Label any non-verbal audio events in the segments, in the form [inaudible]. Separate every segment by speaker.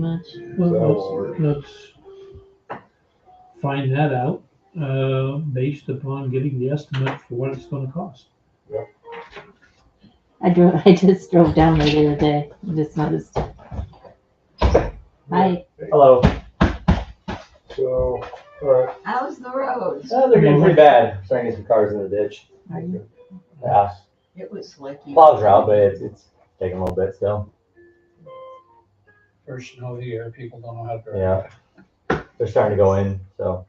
Speaker 1: minutes?
Speaker 2: That'll
Speaker 3: Well,
Speaker 2: work.
Speaker 3: let's, let's find that out, uh, based upon getting the estimate for what it's gonna cost.
Speaker 1: I drove, [laughs] I just drove down there the other day, I just noticed. I,
Speaker 4: Hello.
Speaker 2: So, alright,
Speaker 5: How's the roads?
Speaker 4: Uh, they're getting pretty bad. Starting to get some cars in the ditch.
Speaker 1: are you-
Speaker 4: Yeah.
Speaker 5: It was slicky.
Speaker 4: Plows are out, but it's, it's taking a little bit still.
Speaker 6: First snow of the year, people don't know how to drive.
Speaker 4: Yeah. They're starting to go in, so.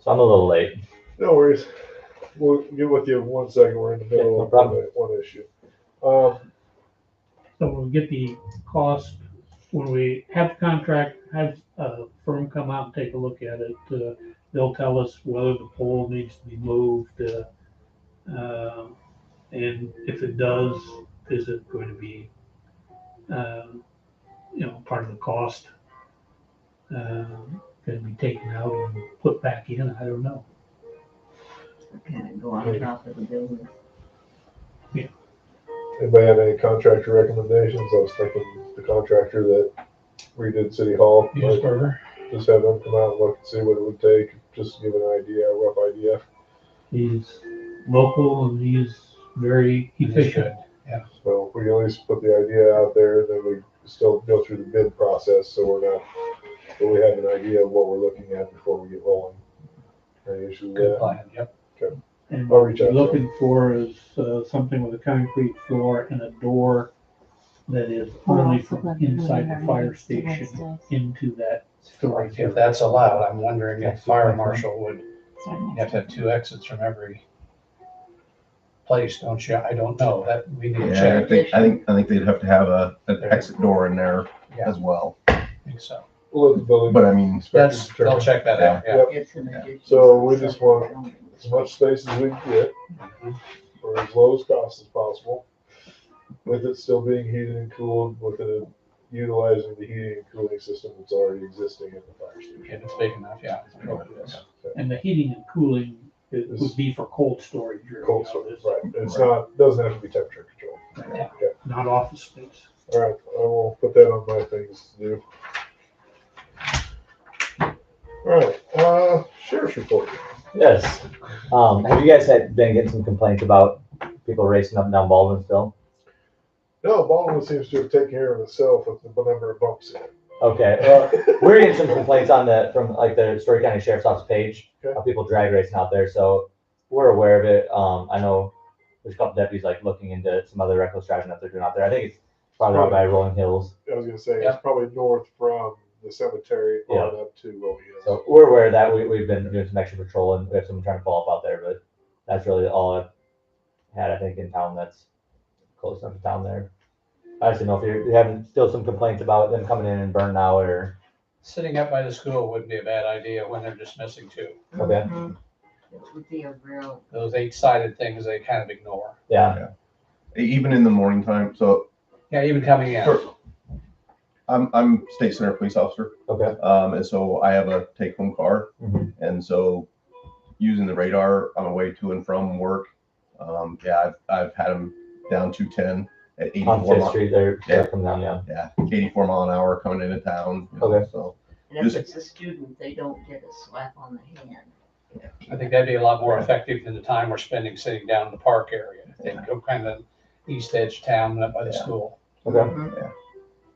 Speaker 4: So I'm a little late.
Speaker 2: no worries. We'll get with you in one second. We're in the
Speaker 4: Yeah,
Speaker 2: middle
Speaker 4: no
Speaker 2: of
Speaker 4: problem.
Speaker 2: one issue. Um,
Speaker 3: So we'll get the cost when we have the contract, have a firm come out and take a look at it. Uh, They'll tell us whether the pole needs to be moved, uh, um, and if it does, is it going to be, um, you know, part of the cost? um, Gonna be taken out and put back in, I don't know.
Speaker 5: Kind of go on top of the building.
Speaker 2: anybody have any contractor recommendations? I was thinking the contractor that redid City Hall, might
Speaker 6: Munisburger,
Speaker 2: just have them come out and look and see what it would take, just to give an idea, a rough idea.
Speaker 3: He's local and he's very
Speaker 6: and it's
Speaker 3: efficient.
Speaker 6: good.
Speaker 2: So we at least put the idea out there, and then we still go through the bid process, so we're not, so we have an idea of what we're looking at before we get rolling. Any issues with
Speaker 6: Good
Speaker 2: that?
Speaker 6: plan, yep.
Speaker 3: And
Speaker 2: I'll
Speaker 3: what
Speaker 2: reach
Speaker 3: you're
Speaker 2: out to
Speaker 3: looking for is uh, something with a concrete floor and a door that is only from inside the fire station into that storage.
Speaker 6: If
Speaker 3: area.
Speaker 6: that's allowed, I'm wondering if fire marshal would, you have to have two exits from every place, don't you? I don't know, that, we need to
Speaker 7: Yeah, I
Speaker 6: check.
Speaker 7: think, I think, I think they'd have to have a, an exit door in there
Speaker 6: Yeah,
Speaker 7: as well.
Speaker 6: I think so.
Speaker 2: We'll let the building
Speaker 7: But I mean,
Speaker 2: inspector
Speaker 6: That's,
Speaker 2: determine
Speaker 6: they'll check that out, yeah.
Speaker 2: Yep.
Speaker 5: It's an addition.
Speaker 2: So we just want- as much space as we can get, for as low as cost as possible, with it still being heated and cooled, with it utilizing the heating and cooling system that's already existing in the fire station.
Speaker 6: If it's big enough, yeah. Go with this.
Speaker 3: And the heating and cooling it would be for cold storage. or,
Speaker 2: Cold
Speaker 3: you know,
Speaker 2: storage,
Speaker 3: it's
Speaker 2: right, it's not, doesn't have to be temperature controlled.
Speaker 3: Not office space.
Speaker 2: All right, I will put that on my things to do. All right, uh, sheriff's report.
Speaker 4: Yes. Um, have you guys had, been getting some complaints about people racing up and down Baldwin still?
Speaker 2: No, Baldwin seems to have taken care of itself with the number of bumps in it.
Speaker 4: Okay.
Speaker 2: Uh,
Speaker 4: We're getting some complaints on the, from like the Story County Sheriff's Office page,
Speaker 2: Okay.
Speaker 4: of people drag racing out there, so we're aware of it. Um, I know there's a couple deputies like looking into some other reckless driving that they're doing out there. I think it's probably out by Rolling Hills.
Speaker 2: I was gonna say,
Speaker 6: Yeah.
Speaker 2: it's probably north from the cemetery on up to Rolling Hills.
Speaker 4: So we're aware of that. We, we've been doing some extra patrol and we have someone trying to follow up out there, but that's really all I've had, I think, in town that's close enough to town there. I just don't know if you're, you having still some complaints about them coming in and burning out or,
Speaker 6: Sitting up by the school wouldn't be a bad idea when they're dismissing too.
Speaker 4: okay,
Speaker 5: Mhm. It would be a real,
Speaker 6: Those eight-sided things, they kind of ignore.
Speaker 4: yeah,
Speaker 7: even in the morning time, so
Speaker 6: Yeah, even coming in.
Speaker 7: I'm, I'm state center police officer.
Speaker 4: okay,
Speaker 7: Um, and so I have a take home car.
Speaker 6: Mm-hmm.
Speaker 4: Mhm.
Speaker 7: And so using the radar on the way to and from work, um, yeah, I've, I've had them down to ten at
Speaker 4: on
Speaker 7: eighty-four
Speaker 4: Fifth
Speaker 7: mile.
Speaker 4: Street, they're, they're
Speaker 7: Yeah.
Speaker 4: coming down, yeah.
Speaker 7: Yeah, eighty-four mile an hour coming into town. you know,
Speaker 4: Okay.
Speaker 7: So,
Speaker 5: and if
Speaker 7: Just-
Speaker 5: it's a student, they don't get a slap on the hand.
Speaker 6: I think that'd be a lot more effective than the time we're spending sitting down in the park area. I think go kind of east edge of town and up by the
Speaker 7: Yeah.
Speaker 6: school.
Speaker 4: Okay.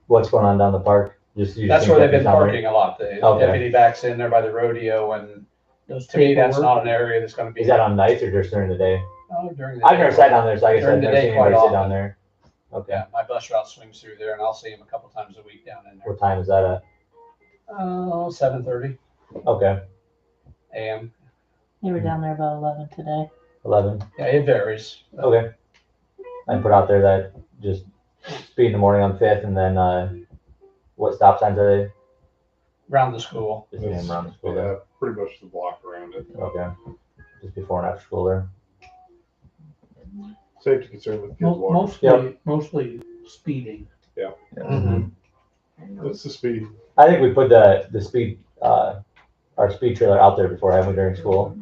Speaker 4: What's going on down the park? Just you
Speaker 6: That's
Speaker 4: think
Speaker 6: where they've been
Speaker 4: that's not right?
Speaker 6: parking a lot. The
Speaker 4: Okay.
Speaker 6: deputy backs in there by the rodeo and
Speaker 3: Does
Speaker 6: to me, that's
Speaker 3: paperwork-
Speaker 6: not an area that's gonna be.
Speaker 4: Is that on nights or just during the day?
Speaker 6: Oh, during the
Speaker 4: I've never
Speaker 6: day.
Speaker 4: sat down there, so I guess
Speaker 6: During
Speaker 4: I've
Speaker 6: the
Speaker 4: never
Speaker 6: day
Speaker 4: seen
Speaker 6: quite
Speaker 4: anybody sit down
Speaker 6: often.
Speaker 4: there. Okay.
Speaker 6: Yeah, my bus route swings through there and I'll see him a couple times a week down in there.
Speaker 4: What time is that at?
Speaker 6: Oh, seven thirty
Speaker 4: Okay,
Speaker 6: AM.
Speaker 1: They were down there about eleven today.
Speaker 4: eleven.
Speaker 6: Yeah, it varies.
Speaker 4: Okay. I put out there that just speed in the morning on Fifth, and then uh, what stop signs are
Speaker 6: Around the school.
Speaker 4: they? Just name around the school there.
Speaker 2: Yeah, pretty much the block around it.
Speaker 4: Okay. Just before and after school there.
Speaker 2: Safety concern with kids
Speaker 3: Mo-
Speaker 2: walking.
Speaker 3: Mostly, mostly speeding.
Speaker 5: I know
Speaker 2: It's the speed.
Speaker 4: I think we put the the speed uh, our speed trailer out there before having during school,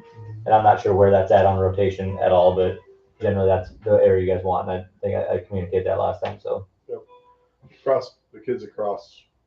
Speaker 4: and I'm not sure where that's at on rotation at all, but generally that's the area you guys want, and I think I, I communicated that last time. So
Speaker 2: Cross, the kids across